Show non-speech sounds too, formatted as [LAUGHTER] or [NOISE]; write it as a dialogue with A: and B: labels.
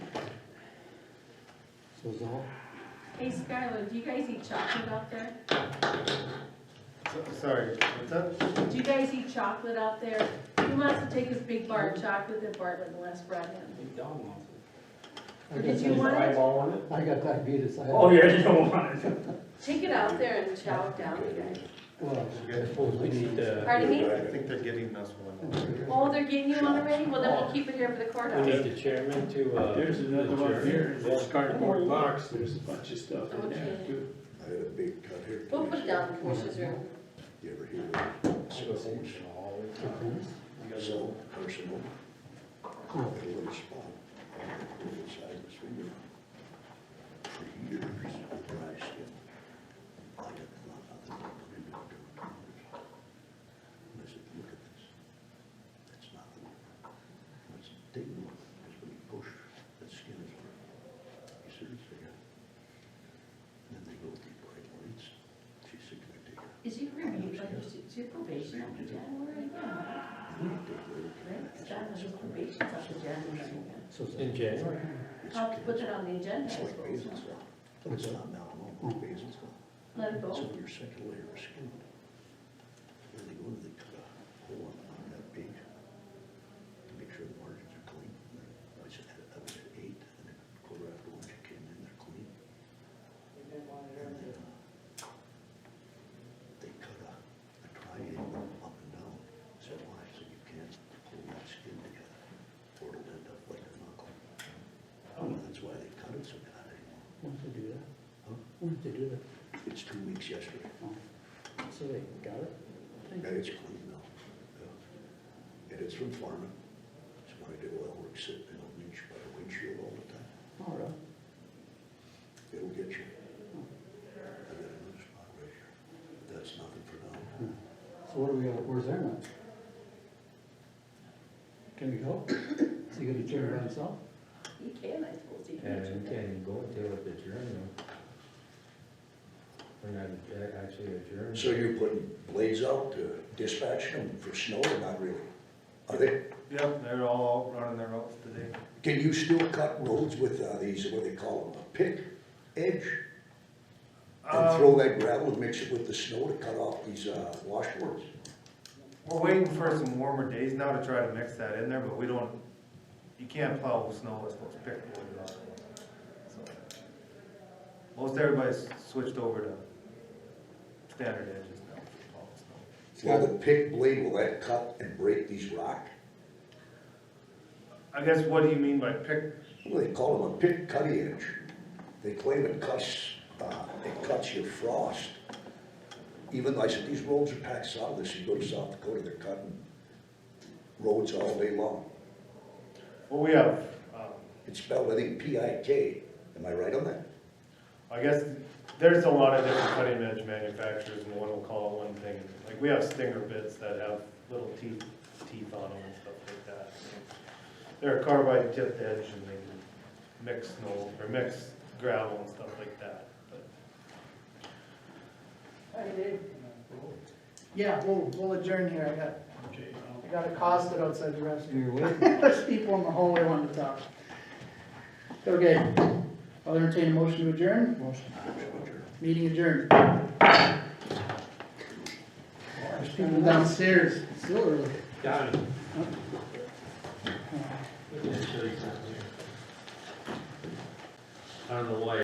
A: So is all?
B: Hey Skylar, do you guys eat chocolate out there?
C: So- Sorry, what's up?
B: Do you guys eat chocolate out there? Who wants to take this big bar of chocolate that Bartlett and Les brought in?
A: I
B: Or
A: got
B: did you
A: di-
B: want it?
A: I got diabetes, I have.
D: Oh, yeah, you don't want it.
B: Take it out there and chow it down, you guys.
A: Well,
C: Okay.
A: I suppose we need to.
B: Pardon me?
C: I think they're getting us one.
B: Oh, they're getting you one already? Well, then we'll keep it here for the
E: We
B: courthouse.
E: need the chairman to, uh.
F: There's another one
E: adjourn.
F: here, this
B: Yeah.
F: cardboard box, there's a bunch of stuff
B: Oh,
F: in there
B: yeah.
F: too.
G: I had a big cut here.
B: We'll put it down in the commissioner's room.
G: You ever hear of
E: Emotional all the time.
G: it? So personal. A little spot. on the inside of his finger. For years, I priced him. I had thought I would put him into a cottage. And I said, look at this. That's not the one. That's a big one. Because when you push, that skin is hard. He said, it's there. Then they go deep right lights. She said, can I take it?
B: Is your review, like, is it- is your probation up to January? Yeah, right? Skylar, his probation's up to January.
A: So is
E: In
A: that-
E: January.
B: I'll put it on the agenda
G: It's
B: as
G: like
B: well.
G: Basil's law. It's not melanoma, it's Basil's law.
B: Let it
G: It's
B: go.
G: on your second layer of skin. Then they go to the cut a hole on on that big to make sure the margins are clean. And I said, I was at eight, and then quarter after one, she came in, they're clean. And then, uh, They cut a, a triangle up and down. I said, why? I said, you can't pull that skin together, or it'll end up like an knuckle. And that's why they cut it so bad anymore.
A: When did they do that?
G: Huh?
A: When did they do that?
G: It's two weeks yesterday.
A: So they got it?
G: And it's clean now. Yeah. And it's from farming. It's when I do oil work, sitting in a winch by a windshield all the time.
A: All right.
G: It'll get you. I got a new spot right here. That's nothing for now.
A: So what are we, at? where's Aaron? Can we go? Is he gonna turn by himself?
B: He can, I suppose, he
E: And
B: can.
E: you can go until it's adjourned. We're not adj- actually adjourned.
G: So you're putting blades out to dispatch them for snow or not really? Are they,
C: Yep, they're all running their routes today.
G: can you still cut roads with uh, these, what do they call them, a pick edge? And
C: Um,
G: throw that gravel and mix it with the snow to cut off these uh, washboards?
C: We're waiting for some warmer days now to try to mix that in there, but we don't, you can't plow with snow, it's supposed to pick boys up. So, Most everybody's switched over to standard edges now. for plowing snow.
G: Well, the pick blade, will that cut and break these rock?
C: I guess, what do you mean by pick?
G: Well, they call them a pick cutty edge. They claim it cuts, uh, it cuts your frost. Even though I said, these roads are packed solid, this, you go to South Dakota, they're cutting roads all day long.
C: Well, we have, um,
G: It's spelled, I think, P I K, am I right on that?
C: I guess, there's a lot of different cutting edge manufacturers, and one will call it one thing, like, we have stinger bits that have little teeth, teeth on them and stuff like that. They're a carbide tipped edge, and they can mix snow, or mix gravel and stuff like that, but.
H: Hi, Dave. Yeah, we'll, we'll adjourn here, I got,
F: Okay, I'll-
H: I got accosted outside the restaurant.
A: You're waiting.
H: [LAUGHS] There's people in the hallway wanting to talk. Okay, I'll entertain a motion to adjourn. Motion. Meeting adjourned. There's people downstairs, still early.
E: Donnie. I don't know why